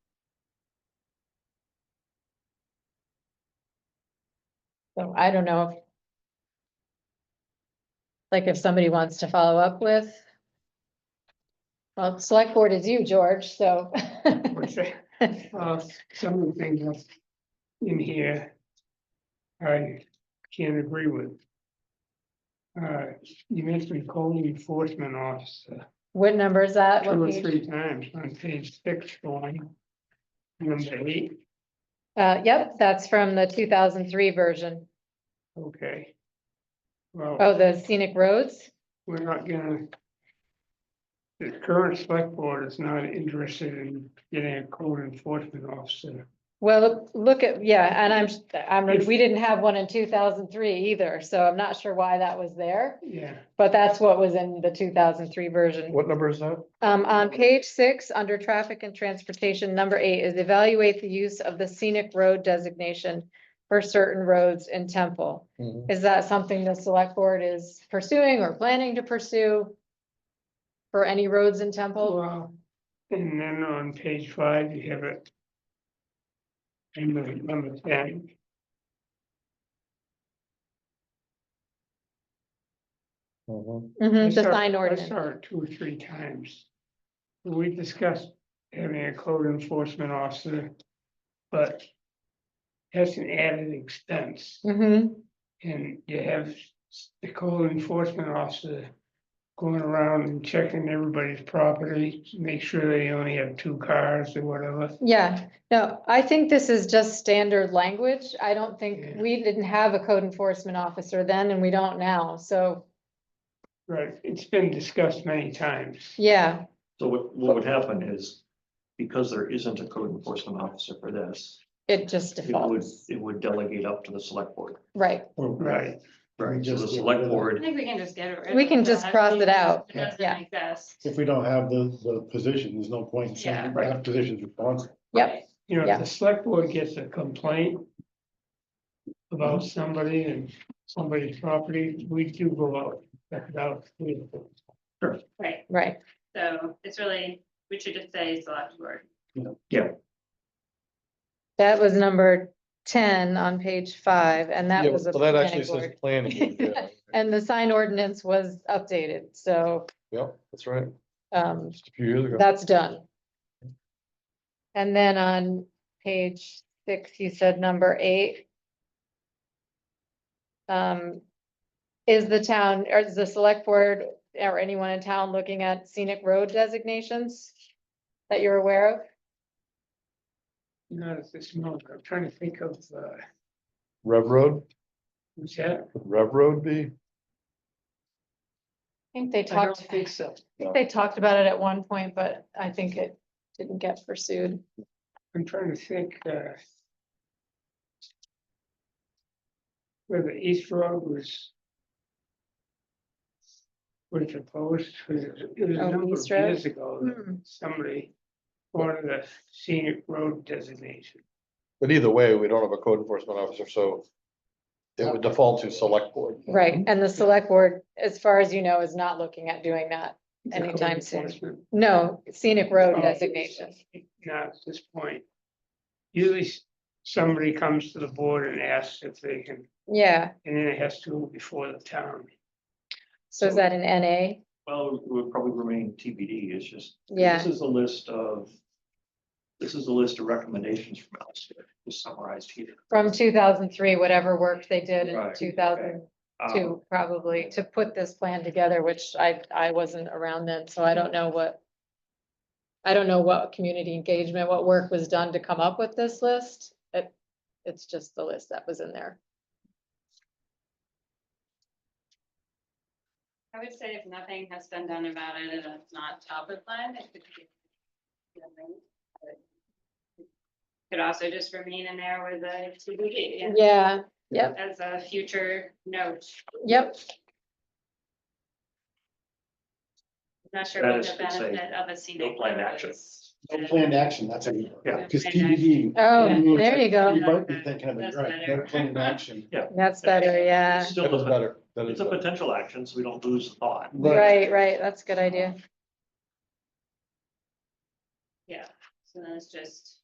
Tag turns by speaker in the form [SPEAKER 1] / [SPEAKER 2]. [SPEAKER 1] So I don't know if. Like if somebody wants to follow up with. Well, select board is you, George, so.
[SPEAKER 2] which, uh, some of the things that's in here. I can't agree with. Uh, you mentioned code enforcement officer
[SPEAKER 1] What number is that?
[SPEAKER 2] two
[SPEAKER 1] What
[SPEAKER 2] or
[SPEAKER 1] page?
[SPEAKER 2] three times on page six, going. Number eight,
[SPEAKER 1] Uh, yep, that's from the two thousand three version.
[SPEAKER 2] okay. Well,
[SPEAKER 1] Oh, the scenic roads?
[SPEAKER 2] we're not gonna. The current select board is not interested in getting a code enforcement officer.
[SPEAKER 1] Well, look at, yeah, and I'm, I'm, we didn't have one in two thousand three either, so I'm not sure why that was there.
[SPEAKER 2] Yeah,
[SPEAKER 1] But that's what was in the two thousand three version.
[SPEAKER 3] What number is that?
[SPEAKER 1] Um, on page six, under traffic and transportation, number eight is evaluate the use of the scenic road designation for certain roads in Temple.
[SPEAKER 3] Mm-hmm.
[SPEAKER 1] Is that something the select board is pursuing or planning to pursue? For any roads in Temple?
[SPEAKER 2] well, and then on page five, you have it. And the number ten.
[SPEAKER 3] Mhm.
[SPEAKER 2] I
[SPEAKER 1] Mhm, the
[SPEAKER 2] saw-
[SPEAKER 1] sign
[SPEAKER 2] I
[SPEAKER 1] ordinance.
[SPEAKER 2] saw it two or three times. We discussed having a code enforcement officer, but that's an added expense,
[SPEAKER 1] Mhm,
[SPEAKER 2] and you have the code enforcement officer going around and checking everybody's property, make sure they only have two cars or whatever.
[SPEAKER 1] yeah, no, I think this is just standard language. I don't think,
[SPEAKER 2] Yeah.
[SPEAKER 1] we didn't have a code enforcement officer then and we don't now, so,
[SPEAKER 2] Right, it's been discussed many times.
[SPEAKER 1] yeah.
[SPEAKER 4] So what, what would happen is, because there isn't a code enforcement officer for this,
[SPEAKER 1] It just
[SPEAKER 4] it would,
[SPEAKER 1] defaults,
[SPEAKER 4] it would delegate up to the select board.
[SPEAKER 1] right,
[SPEAKER 2] Right,
[SPEAKER 3] Right.
[SPEAKER 4] So the
[SPEAKER 3] Just-
[SPEAKER 4] select
[SPEAKER 5] I
[SPEAKER 4] board,
[SPEAKER 5] think we can just get rid of.
[SPEAKER 1] We can just
[SPEAKER 5] that
[SPEAKER 1] cross it
[SPEAKER 5] because
[SPEAKER 1] out.
[SPEAKER 5] It doesn't
[SPEAKER 1] Yeah.
[SPEAKER 5] exist.
[SPEAKER 3] If we don't have the, the position, there's no point in saying we
[SPEAKER 4] Yeah.
[SPEAKER 3] have positions responsible.
[SPEAKER 1] yep,
[SPEAKER 2] you know,
[SPEAKER 1] Yeah.
[SPEAKER 2] if the select board gets a complaint about somebody and somebody's property, we do go out, check it out. we-
[SPEAKER 5] Right,
[SPEAKER 1] right.
[SPEAKER 5] so it's really, we should just say select board.
[SPEAKER 1] That was number ten on page five, and that was. a planning board.
[SPEAKER 3] planning. yeah.
[SPEAKER 1] And the sign ordinance was updated, so
[SPEAKER 3] Yep, that's right.
[SPEAKER 1] um
[SPEAKER 3] Just a few years ago.
[SPEAKER 1] that's done. And then on page six, you said number eight. Um, is the town, or is the select board or anyone in town looking at scenic road designations? That you're aware of?
[SPEAKER 2] Not at this moment, I'm trying to think of, uh,
[SPEAKER 3] Rev Road,
[SPEAKER 2] who's that?
[SPEAKER 3] would Rev Road be?
[SPEAKER 1] I think they
[SPEAKER 2] I don't
[SPEAKER 1] talked,
[SPEAKER 2] think so.
[SPEAKER 1] they talked about it at one point, but I think it didn't get pursued.
[SPEAKER 2] I'm trying to think, uh. Where the East Road was. Was proposed, it was it was a
[SPEAKER 1] Oh,
[SPEAKER 2] number of
[SPEAKER 1] East Road?
[SPEAKER 2] years ago, that
[SPEAKER 1] Hmm.
[SPEAKER 2] somebody wanted a scenic road designation.
[SPEAKER 3] But either way, we don't have a code enforcement officer, so it would default to select board.
[SPEAKER 1] Right, and the select board, as far as you know, is not looking at doing that.
[SPEAKER 2] The code
[SPEAKER 1] Anytime soon.
[SPEAKER 2] enforcement
[SPEAKER 1] No, scenic road
[SPEAKER 2] office,
[SPEAKER 1] designation.
[SPEAKER 2] Not at this point. Usually s- somebody comes to the board and asks if they can,
[SPEAKER 1] Yeah,
[SPEAKER 2] and then it has to go before the town.
[SPEAKER 1] so is that an NA?
[SPEAKER 4] well, it would probably remain TBD, it's just.
[SPEAKER 1] Yeah.
[SPEAKER 4] This is a list of, this is a list of recommendations from Alistair, just summarized here.
[SPEAKER 1] From two thousand three, whatever work they did in
[SPEAKER 4] Right,
[SPEAKER 1] two thousand
[SPEAKER 4] Um,
[SPEAKER 1] two, probably, to put this plan together, which I, I wasn't around then, so I don't know what. I don't know what community engagement, what work was done to come up with this list. It, it's just the list that was in there.
[SPEAKER 5] I would say if nothing has been done about it and it's not top of plan, it could be. Could also just remain in there with a TBD, yeah,
[SPEAKER 1] Yeah,
[SPEAKER 5] as a future note.
[SPEAKER 1] yep,
[SPEAKER 5] Not sure
[SPEAKER 4] That
[SPEAKER 5] what
[SPEAKER 4] is,
[SPEAKER 5] the
[SPEAKER 4] could say,
[SPEAKER 5] benefit of a scenic.
[SPEAKER 4] no planned
[SPEAKER 5] road
[SPEAKER 4] action.
[SPEAKER 5] is.
[SPEAKER 3] No planned action, that's a.
[SPEAKER 4] Yeah.
[SPEAKER 3] Cause TBD.
[SPEAKER 1] Oh,
[SPEAKER 3] Yeah.
[SPEAKER 1] there you go.
[SPEAKER 3] You might be thinking of it, right, no
[SPEAKER 5] That's
[SPEAKER 3] planned action.
[SPEAKER 1] that's better, yeah.
[SPEAKER 4] Still,
[SPEAKER 3] That is
[SPEAKER 4] a-
[SPEAKER 3] better. That is
[SPEAKER 4] it's a
[SPEAKER 3] better.
[SPEAKER 4] potential action, so we don't lose the thought.
[SPEAKER 1] Right, right, that's a good idea.
[SPEAKER 5] Yeah, so then it's just